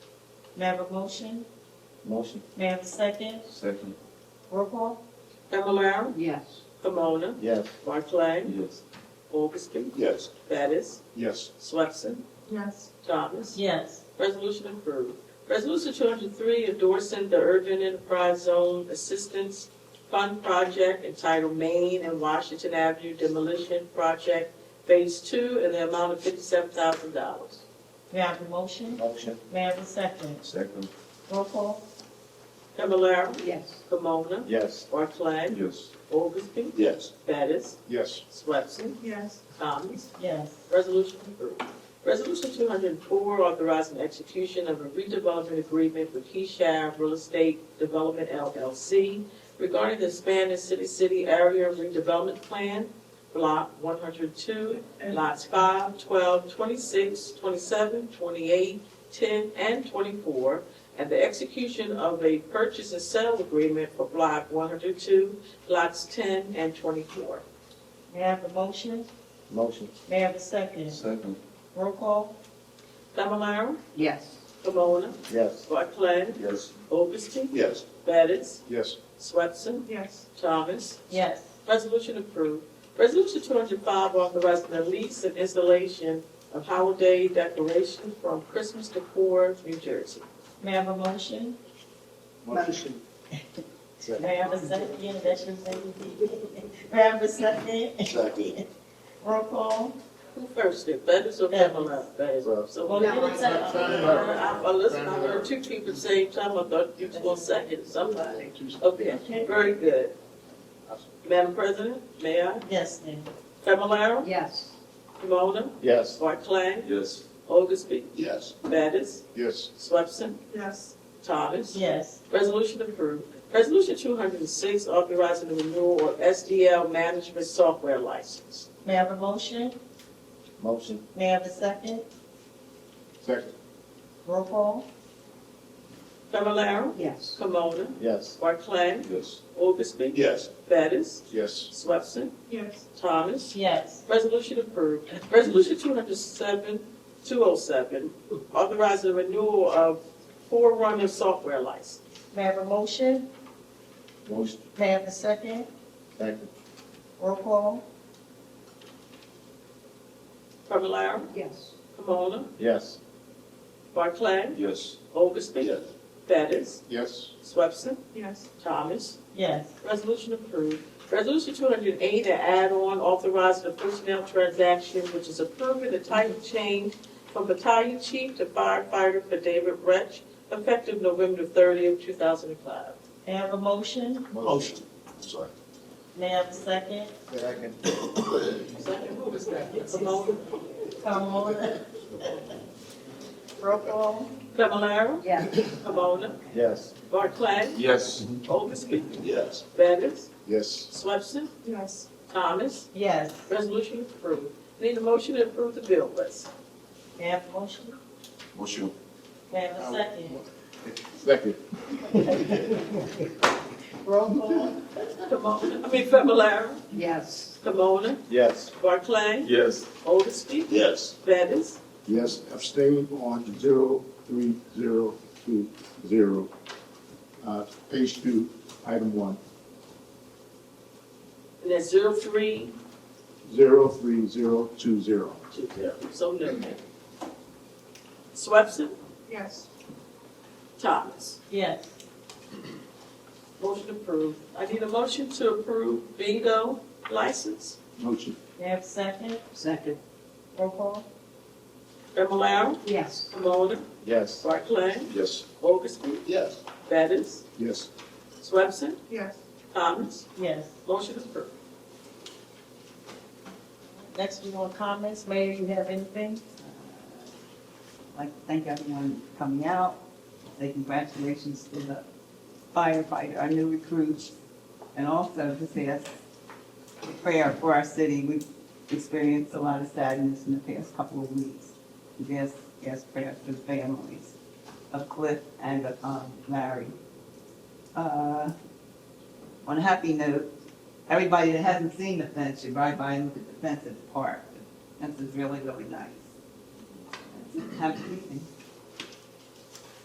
May I have a motion? Motion. May I have a second? Second. Roll call? Fablelaro, yes, Camona, Yes. Barclay, Yes. Auguste, Yes. Bettis, Yes. Swepson, Yes. Thomas. Yes. Resolution approved. Resolution two hundred three endorsing the Urban Enterprise Zone Assistance Fund Project entitled Maine and Washington Avenue Demolition Project Phase Two in the amount of fifty-seven thousand dollars. May I have a motion? Motion. May I have a second? Second. Roll call? Fablelaro, yes, Camona, Yes. Barclay, Yes. Auguste, Yes. Bettis, Yes. Swepson, Yes. Thomas. Yes. Resolution approved. Resolution two hundred and four, authorizing execution of a redevelopment agreement with Keyshav Real Estate Development LLC regarding the expanded city-city area redevelopment plan, block one hundred two, lots 5, 12, 26, 27, 28, 10, and twenty-four, and the execution of a purchase and sale agreement for block one hundred two, lots ten and twenty-four. May I have a motion? Motion. May I have a second? Second. Roll call? Fablelaro, yes, Camona, Yes. Barclay, Yes. Augustine, Yes. Bettis, Yes. Swetson, Yes. Thomas. Yes. Resolution approved. Resolution two hundred five authorizing the lease and installation of holiday decorations from Christmas decor, New Jersey. May I have a motion? motion, May I have a second? That's your second. May I have a second? Second. Roll call? Who first did, Bettis or Bettis. Pamela? Bettis. So Well, what did no, it say? I- I, I listened, I heard two people at the same time, I thought you was going second, somebody. Okay, Okay. very good. Madam President, may I? Yes, ma'am. Familar, yes, Kimona, Yes. Barclay, Yes. Augustby, Yes. Bettis, Yes. Swepson, Yes. Thomas. Yes. Resolution approved. Resolution two hundred and six, authorizing the renewal of SDL management software license. May I have a motion? Motion. May I have a second? Second. Roll call? Fablelaro, yes, Camona, Yes. Barclay, Yes. Augustby. Yes. Bettis, Yes. Swepson, Yes. Thomas. Yes. Resolution approved. Resolution 207, 207, authorizing the renewal of Forerunner software license. May I have a motion? Motion. May I have a second? Second. Roll call? Fablelaro, yes, Camona, Yes. Barclay, Yes. Augustby, Yes. Bettis, Yes. Swepson, Yes. Thomas. Yes. Resolution approved. Resolution two hundred and eight, an add-on authorizing the personnel transaction, which is approving the title change from battalion chief to firefighter for David Retch, effective November thirtieth, two thousand and five. May I have a motion? Motion. Sorry. May I have a second? Second. Second, who was that? Camona, Come on. Roll call? Familar, yes, Camona, Yes. Barclay, Yes. Oldesty, Yes. Bettis, Yes. Swepson, Yes. Thomas. Yes. Resolution approved. Need a motion to approve the bill list. May I have a motion? Motion. May I have a second? Second. Roll call? Camona, I mean Familar, yes, Camona, Yes. Barclay, Yes. Oldesty, Yes. Bettis, Yes, abstaining on zero three zero two zero. Uh, page two, item one, and that's zero three zero three zero two zero. two zero, so noted. Swepson, Yes. Thomas, Yes. motion approved. I need a motion to approve bingo license. Motion, May I have a second? second, Roll call? Fablelaro, yes, Camona, Yes. Barclay, Yes. Augustby, Yes. Bettis, yes. Swepson, Yes. Thomas, Yes. motion approved. Next, we want comments. Mayor, you have anything? I'd like to thank everyone coming out, say congratulations to the firefighter, our new recruits, and also to say that's a prayer for our city. We've experienced a lot of sadness in the past couple of weeks. Yes, yes, prayer for the families of Cliff and of um, Larry. Uh, On a happy note, everybody that hasn't seen the fence should ride by and look at the fence at the park. The fence is really, really nice. Have a good evening.